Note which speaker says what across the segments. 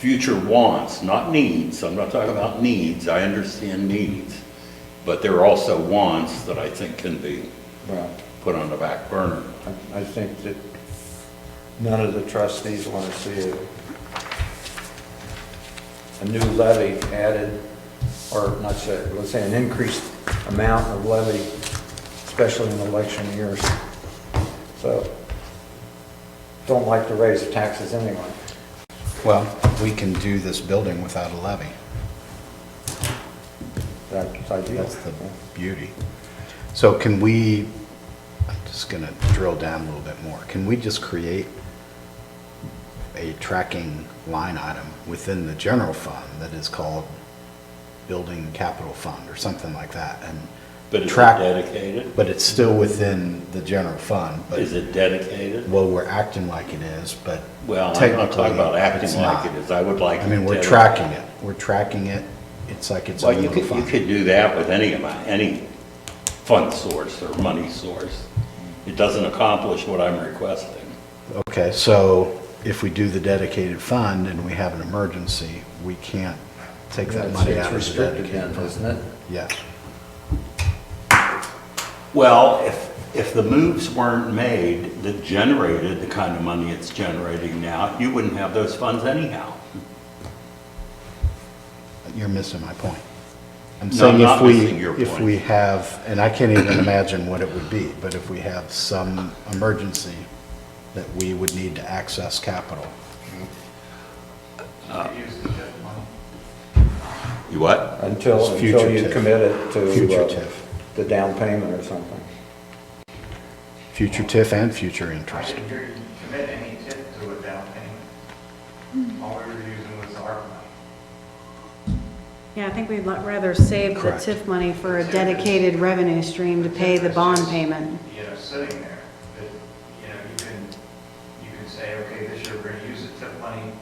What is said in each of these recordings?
Speaker 1: future wants, not needs, I'm not talking about needs, I understand needs, but there are also wants that I think can be
Speaker 2: Well,
Speaker 1: put on the back burner.
Speaker 2: I- I think that none of the trustees want to see a, a new levy added, or not say, let's say an increased amount of levy, especially in election years. So, don't like to raise taxes anyway.
Speaker 3: Well, we can do this building without a levy.
Speaker 2: That's ideal.
Speaker 3: That's the beauty. So can we, I'm just going to drill down a little bit more. Can we just create a tracking line item within the general fund that is called Building Capital Fund or something like that?
Speaker 1: But
Speaker 3: and
Speaker 1: is it
Speaker 3: track?
Speaker 1: dedicated?
Speaker 3: But it's still within the general fund, but,
Speaker 1: Is it dedicated?
Speaker 3: well, we're acting like it is, but
Speaker 1: Well, I'm not
Speaker 3: technically,
Speaker 1: talking about
Speaker 3: it's
Speaker 1: acting like
Speaker 3: not.
Speaker 1: it is, I would like.
Speaker 3: I mean, we're
Speaker 1: dedi-
Speaker 3: tracking it, we're tracking it, it's like it's a
Speaker 1: Well, you
Speaker 3: little
Speaker 1: could, you
Speaker 3: fund.
Speaker 1: could do that with any amount, any fund source or money source. It doesn't accomplish what I'm requesting.
Speaker 3: Okay, so if we do the dedicated fund and we have an emergency, we can't take that
Speaker 2: It's-
Speaker 3: money
Speaker 2: it's
Speaker 3: out of the
Speaker 2: restricted
Speaker 3: dedicated
Speaker 2: then,
Speaker 3: fund.
Speaker 2: Isn't it?
Speaker 3: Yes,
Speaker 1: Well, if, if the moves weren't made that generated the kind of money it's generating now, you wouldn't have those funds anyhow.
Speaker 3: you're missing my point. I'm
Speaker 1: No,
Speaker 3: saying
Speaker 1: I'm
Speaker 3: if
Speaker 1: not missing your
Speaker 3: we, if
Speaker 1: point.
Speaker 3: we have, and I can't even imagine what it would be, but if we have some emergency that we would need to access capital,
Speaker 1: You what?
Speaker 2: Until,
Speaker 3: It's future
Speaker 2: until you
Speaker 3: TIF.
Speaker 2: commit it to. uh,
Speaker 3: Future TIF.
Speaker 2: The down payment or something.
Speaker 3: future TIF and future interest.
Speaker 4: I didn't hear you commit any tip to a down payment.
Speaker 5: Hmm.
Speaker 4: All we were using was the ARPA money.
Speaker 5: Yeah, I think we'd li- rather save the
Speaker 3: Correct.
Speaker 5: TIF money for a dedicated revenue stream to pay the bond payment.
Speaker 4: You know, sitting there, that, you know, you can, you can say, okay, this year we're gonna use the tip money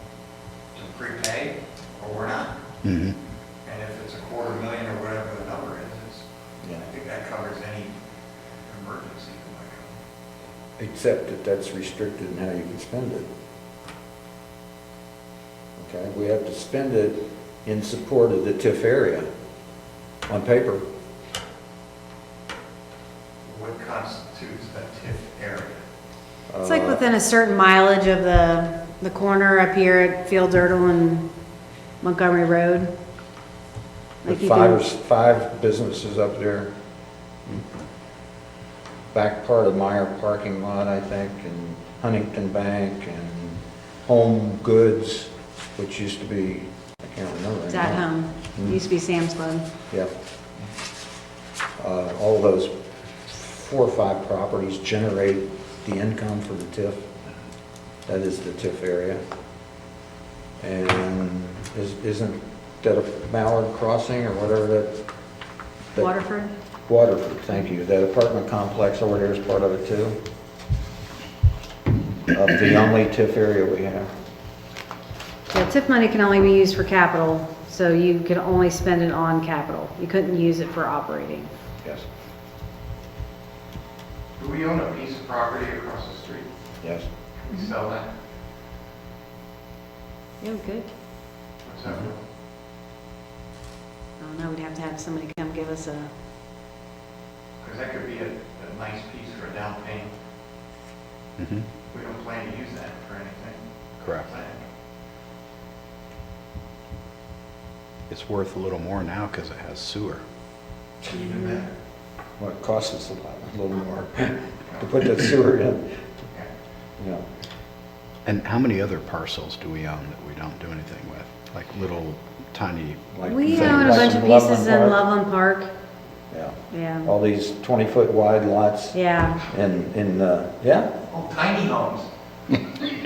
Speaker 4: to prepay, or we're not.
Speaker 3: Mhm.
Speaker 4: And if it's a quarter million or whatever the number is, it's, I think that covers any emergency.
Speaker 2: Except that that's restricted in how you can spend it. Okay, we have to spend it in support of the TIF area on paper.
Speaker 4: What constitutes a tip area?
Speaker 5: It's
Speaker 2: Uh,
Speaker 5: like within a certain mileage of the, the corner up here at Field Dirtle and Montgomery Road. Like
Speaker 2: With
Speaker 5: you
Speaker 2: five, or
Speaker 5: can,
Speaker 2: s- five businesses up there. Back part of Meyer parking lot, I think, and Huntington Bank and Home Goods, which used to be, I can't remember.
Speaker 5: it's at
Speaker 2: anymore.
Speaker 5: home, It used to be Sam's Club.
Speaker 2: Yep. Uh, All those four or five properties generate the income for the TIF. That is the TIF area. And is- isn't that a Mallard Crossing or whatever that? that-
Speaker 5: Waterford?
Speaker 2: Waterford, thank you. That apartment complex over there is part of it too? Of the only TIF area we have.
Speaker 5: Yeah, TIF money can only be used for capital, so you can only spend it on capital. You couldn't use it for operating.
Speaker 2: Yes.
Speaker 4: Do we own a piece of property across the street?
Speaker 2: Yes.
Speaker 4: Can
Speaker 5: Mm-hmm.
Speaker 4: we sell that?
Speaker 5: Yeah, good.
Speaker 4: What's that worth?
Speaker 5: I don't know, we'd have to have somebody come give us a,
Speaker 4: Because that could be a, a nice piece for a down payment.
Speaker 3: Mhm.
Speaker 4: We don't plan to use that for anything.
Speaker 3: Correct. It's worth a little more now because it has sewer.
Speaker 4: Even better.
Speaker 2: Well, it costs us a lot, a little more to put that sewer in,
Speaker 4: Okay.
Speaker 2: you know.
Speaker 3: And how many other parcels do we own that we don't do anything with? Like little tiny,
Speaker 2: like
Speaker 5: we
Speaker 2: things
Speaker 5: own a
Speaker 2: like
Speaker 5: bunch of
Speaker 2: Loveland
Speaker 5: pieces in
Speaker 2: Park.
Speaker 5: Loveland Park.
Speaker 2: Yeah,
Speaker 5: Yeah,
Speaker 2: all these 20-foot wide lots
Speaker 5: yeah.
Speaker 2: and, and, uh, yeah,
Speaker 4: Oh, tiny homes.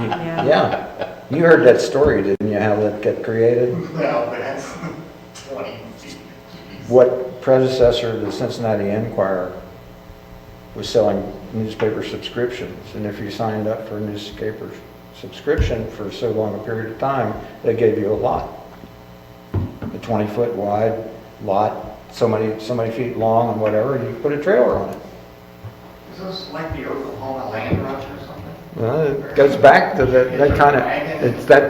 Speaker 5: Yeah.
Speaker 2: yeah. You heard that story, didn't you, how that got created?
Speaker 4: Well, but that's twenty feet.
Speaker 2: What predecessor to the Cincinnati Enquirer was selling newspaper subscriptions, and if you signed up for a newspaper subscription for so long a period of time, they gave you a lot. A 20-foot wide lot, so many, so many feet long and whatever, and you put a trailer on it.
Speaker 4: Is this like the Oklahoma land rush or something?
Speaker 2: Well, it goes back to that, that kind of, it's that